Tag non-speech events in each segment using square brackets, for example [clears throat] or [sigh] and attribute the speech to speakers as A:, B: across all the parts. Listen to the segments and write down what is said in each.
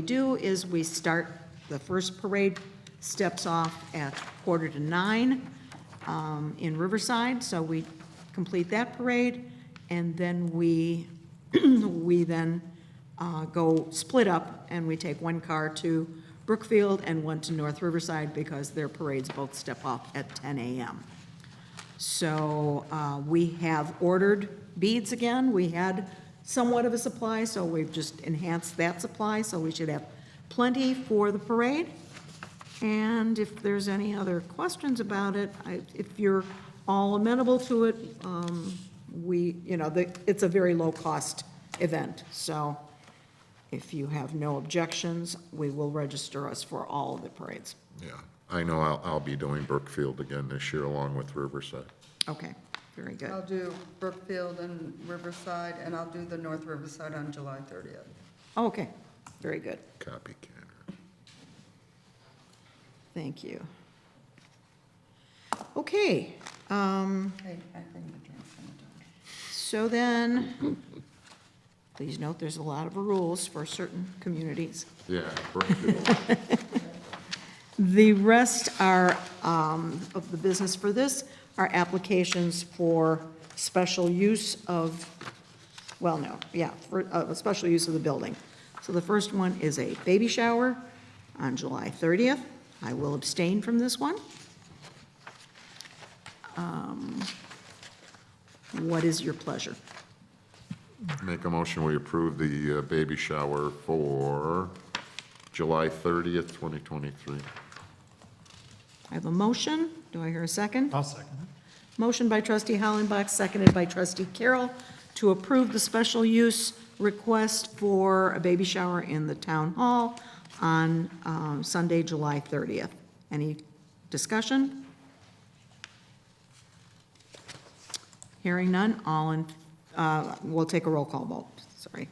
A: we do is we start, the first parade steps off at quarter to nine um, in Riverside, so we complete that parade, and then we, [clears throat] we then uh, go split up, and we take one car to Brookfield and one to North Riverside, because their parades both step off at 10 a.m. So uh, we have ordered beads again. We had somewhat of a supply, so we've just enhanced that supply, so we should have plenty for the parade. And if there's any other questions about it, I- if you're all amenable to it, um, we, you know, the- it's a very low-cost event, so if you have no objections, we will register us for all of the parades.
B: Yeah, I know I'll, I'll be doing Brookfield again this year along with Riverside.
A: Okay, very good.
C: I'll do Brookfield and Riverside, and I'll do the North Riverside on July 30th.
A: Okay, very good.
B: Copy Canada.
A: Thank you. Okay, um,
C: Hey, I bring the drinks and the donuts.
A: so then, please note, there's a lot of rules for certain communities.
B: Yeah, Brookfield,
A: The rest are, um, of the business for this, are applications for special use of, well, no, yeah, for, uh, a special use of the building. So the first one is a baby shower on July 30th. I will abstain from this one. Um, What is your pleasure?
B: make a motion, we approve the uh, baby shower for July 30th, 2023.
A: I have a motion. Do I hear a second?
D: I'll second it.
A: Motion by trustee Hollenbach, seconded by trustee Carroll, to approve the special use request for a baby shower in the town hall on um, Sunday, July 30th. Any discussion? Hearing none, all in, uh, we'll take a roll call vote, sorry.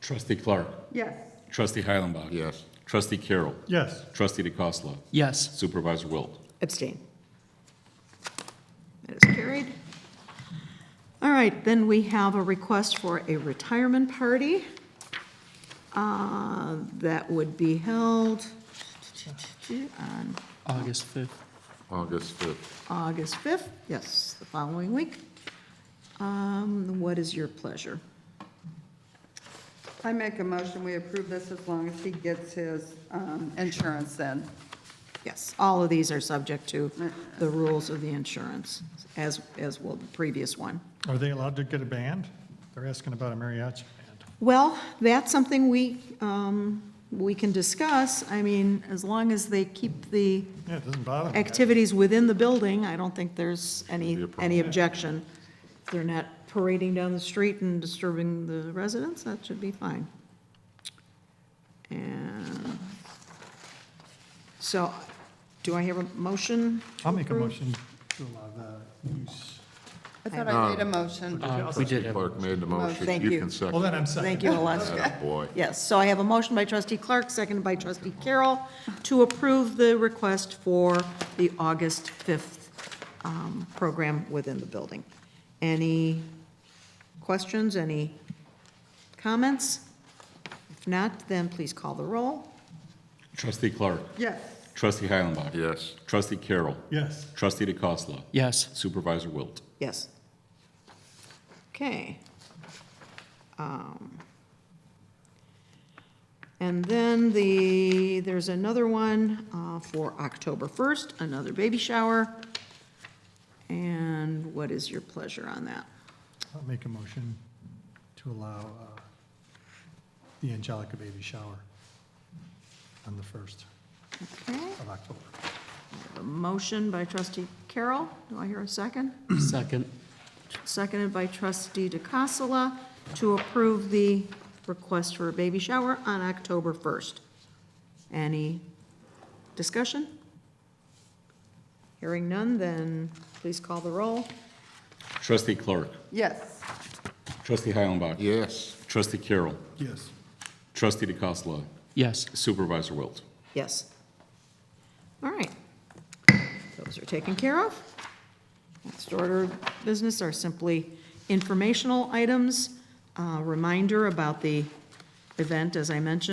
E: Trustee Clark.
C: Yes.
E: Trustee Heilenbach.
B: Yes,
E: Trustee Carroll.
D: Yes.
E: Trustee DeCosta.
D: Yes.
E: Supervisor Wilt.
A: Abstain. That is carried. All right, then we have a request for a retirement party. Uh, That would be held on
D: August 5th.
B: August 5th.
A: August 5th, yes, the following week. Um, What is your pleasure?
C: I make a motion, we approve this as long as he gets his um, insurance in.
A: Yes, all of these are subject to the rules of the insurance, as, as will the previous one.
D: Are they allowed to get a band? They're asking about a mariachi band.
A: Well, that's something we, um, we can discuss. I mean, as long as they keep the
D: Yeah, it doesn't bother me.
A: activities within the building, I don't think there's any, any objection. If they're not parading down the street and disturbing the residents, that should be fine. And, so, do I have a motion?
D: I'll make a motion to allow the use.
C: I thought I made a motion.
D: We
B: did Clark made the motion.
A: Oh, Thank you.
B: can second.
D: Well, then I'm second.
A: Thank you, Alaska.
B: Atta Boy.
A: Yes, so I have a motion by trustee Clark, seconded by trustee Carroll, to approve the request for the August 5th um, program within the building. Any questions, any comments? If not, then please call the roll.
E: Trustee Clark.
C: Yes.
E: Trustee Heilenbach.
B: Yes,
E: Trustee Carroll.
D: Yes.
E: Trustee DeCosta.
F: Yes,
E: Supervisor Wilt.
A: Yes. Okay. Um, And then the, there's another one uh, for October 1st, another baby shower. And what is your pleasure on that?
D: I'll make a motion to allow uh, the Angelica baby shower on the 1st
A: Okay,
D: of October.
A: a motion by trustee Carroll. Do I hear a second?
F: second,
A: Seconded by trustee DeCassola to approve the request for a baby shower on October 1st. Any discussion? Hearing none, then please call the roll.
E: Trustee Clark.
C: Yes.
E: Trustee Heilenbach.
B: yes,
E: Trustee Carroll.
D: Yes.
E: Trustee DeCosta.
F: yes.
E: Supervisor Wilt.
A: Yes. All right. Those are taken care of. Next order of business are simply informational items. Uh, Reminder about the event, as I mentioned,